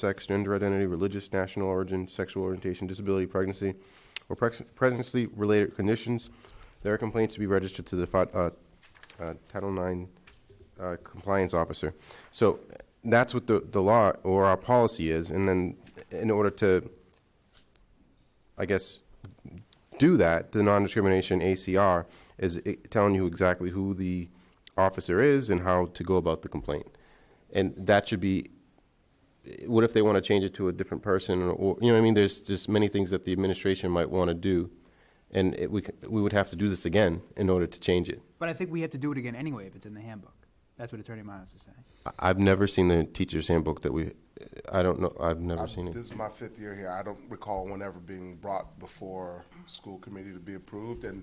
sex, gender identity, religious, national origin, sexual orientation, disability, pregnancy, or prex- pregnancy-related conditions. There are complaints to be registered to the fi- uh, uh, Title IX uh, compliance officer. So that's what the, the law or our policy is, and then in order to, I guess, do that, the non-discrimination ACR is i- telling you exactly who the officer is and how to go about the complaint. And that should be, what if they want to change it to a different person or- or, you know what I mean? There's just many things that the administration might want to do. And it, we, c- we would have to do this again in order to change it. But I think we have to do it again anyway if it's in the handbook. That's what Attorney Miles is saying. I- I've never seen the teacher's handbook that we, I don't know, I've never I've- seen it. This is my fifth year here. I don't recall one ever being brought before school committee to be approved. And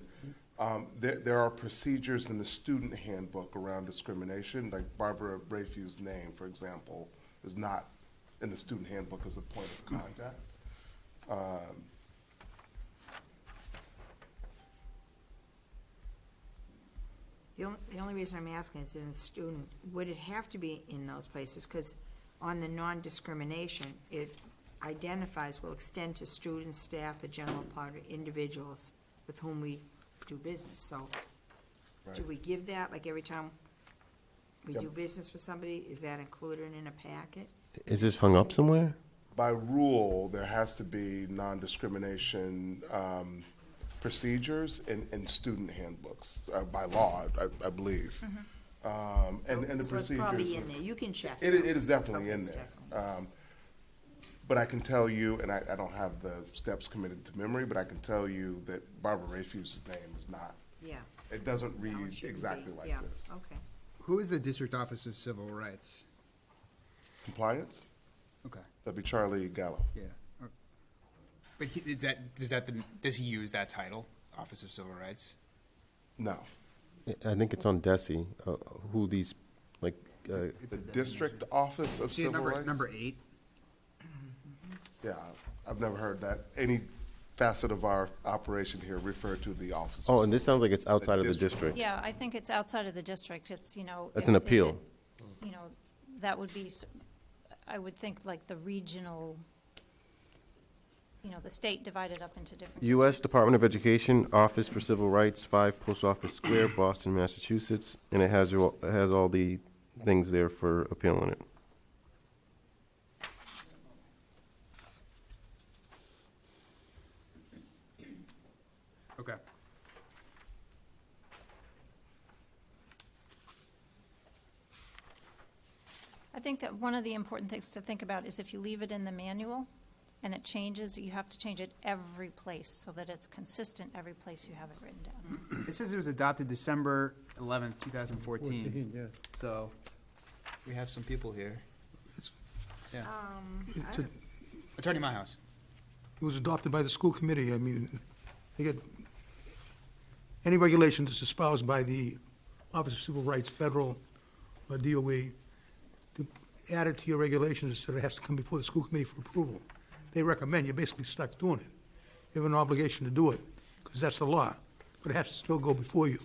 um, there, there are procedures in the student handbook around discrimination, like Barbara Rayfew's name, for example, is not in the student handbook as a point of contact. Um, The only, the only reason I'm asking is in the student, would it have to be in those places? Because on the non-discrimination, it identifies, will extend to students, staff, the general public, individuals with whom we do business. So do we give that, like every time we do Yep. business with somebody, is that included in a packet? Is this hung up somewhere? By rule, there has to be non-discrimination um, procedures in, in student handbooks, uh, by law, I, I believe. Um, And, and the Mm-hmm. So it's procedures. probably in there, you can check. It, it is definitely Okay, in it's there. definitely- Um, But I can tell you, and I, I don't have the steps committed to memory, but I can tell you that Barbara Rayfuse's name is not, Yeah. it doesn't That read one shouldn't be- exactly like yeah, this. okay. Who is the District Office of Civil Rights? Compliance? Okay, That'd be Charlie Gallo. yeah. Or- But he, is that, does that, the- does he use that title, Office of Civil Rights? No. I think it's on Desi, uh, who these, like, uh, The District Office of See, Civil number, Rights? number eight? Yeah, I've never heard that. Any facet of our operation here referred to the office. of oh, and this sounds like it's outside of the district. district. Yeah, I think it's outside of the district, it's, you know. That's if- an is appeal. it- You know, that would be, s- I would think like the regional, you know, the state divided up into different U.S. districts. Department of Education, Office for Civil Rights, 5 Post Office Square, Boston, Massachusetts, and it has, your- it has all the things there for appealing it. Okay. I think that one of the important things to think about is if you leave it in the manual and it changes, you have to change it every place so that it's consistent every place you have it written down. It says it was adopted December eleventh, two thousand fourteen. yeah. So we have some people here. Yeah. Um, I To- don't- Attorney Myhouse. It was adopted by the school committee, I mean, they get, any regulation that's espoused by the Office of Civil Rights, federal, uh, or DOE, E, to add it to your regulations, so it has to come before the school committee for approval. They recommend, you're basically stuck doing it. You have an obligation to do it, because that's the law, but it has to still go before you.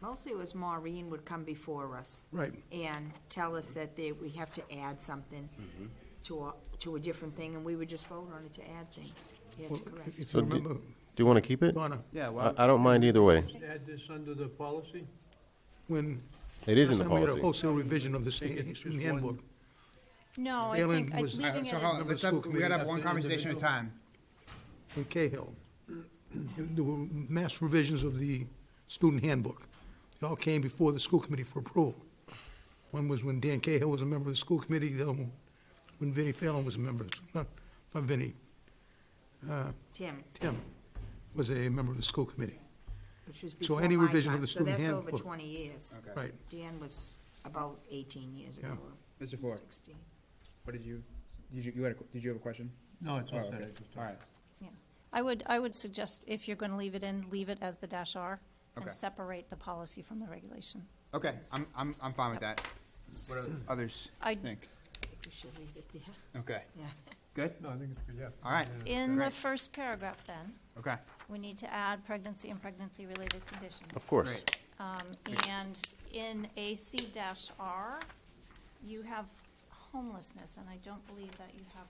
Mostly it was Maureen would come before us. Right. And tell us that they, we have to add something Mm-hmm. to a, to a different thing, and we would just vote on it to add things. You Well, have to correct. If So you do- remember, Do you want to keep it? Donna, Yeah, well, I, I don't mind either way. Add this under the policy? when. It is in the last time We had a policy. wholesale revision of eh, the Take it, state student just one- handbook. No, I Failing think, I- was- leaving it So in. hold on, Number let's school have, we committee. gotta have one conversation at a Individual. time. in Cahill. There were mass revisions of the student handbook. They all came before the school committee for approval. One was when Dan Cahill was a member of the school committee, the other one when Vinnie Fallon was a member, not, not Vinnie, Tim, Tim was a member of the school committee. which was before any my revision of time, the student So that's over handbook. twenty years. Okay. Right, Dan was about eighteen years ago, or Mr. Ford, sixteen. what did you, did you, you had a, did you have a question? No, it's Oh, not okay, all right. Yeah, I would, I would suggest if you're gonna leave it in, leave it as the dash R Okay. and separate the policy from the regulation. Okay, I'm, I'm, I'm fine with that. What do others I, think? I think we should leave it there, Okay, yeah. good, No, I think it's good, yeah. all right, in the Great. first paragraph then, okay, we need to add pregnancy and pregnancy-related conditions. Of course. great. Um, and in AC dash R, you have homelessness, and I don't believe that you have